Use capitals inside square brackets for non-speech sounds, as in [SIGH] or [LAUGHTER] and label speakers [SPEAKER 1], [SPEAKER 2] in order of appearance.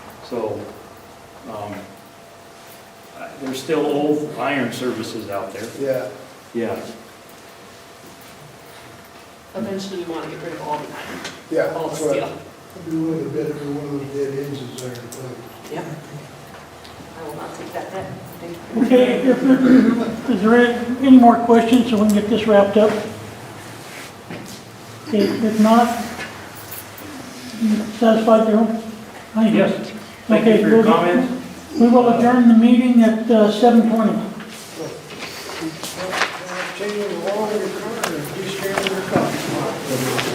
[SPEAKER 1] So, um, I- there's still old iron services out there.
[SPEAKER 2] Yeah,
[SPEAKER 1] Yeah.
[SPEAKER 3] Eventually, we want to get rid of all the iron,
[SPEAKER 2] yeah.
[SPEAKER 3] all the
[SPEAKER 2] that's what-
[SPEAKER 3] steel.
[SPEAKER 2] I'd be willing to bet every one of those dead ends is there. but-
[SPEAKER 3] Yep. I will not take that bet. Thank you.
[SPEAKER 4] [LAUGHS] Okay, if- is there any more questions so we can get this wrapped up? Okay, If not, you satisfied, Darrell? Thank you.
[SPEAKER 1] Yes. Thank you
[SPEAKER 4] Okay,
[SPEAKER 1] for your
[SPEAKER 4] we'll-
[SPEAKER 1] comments.
[SPEAKER 4] We will adjourn the meeting at uh, 7:20.
[SPEAKER 2] Change the law of your car, and just carry your car.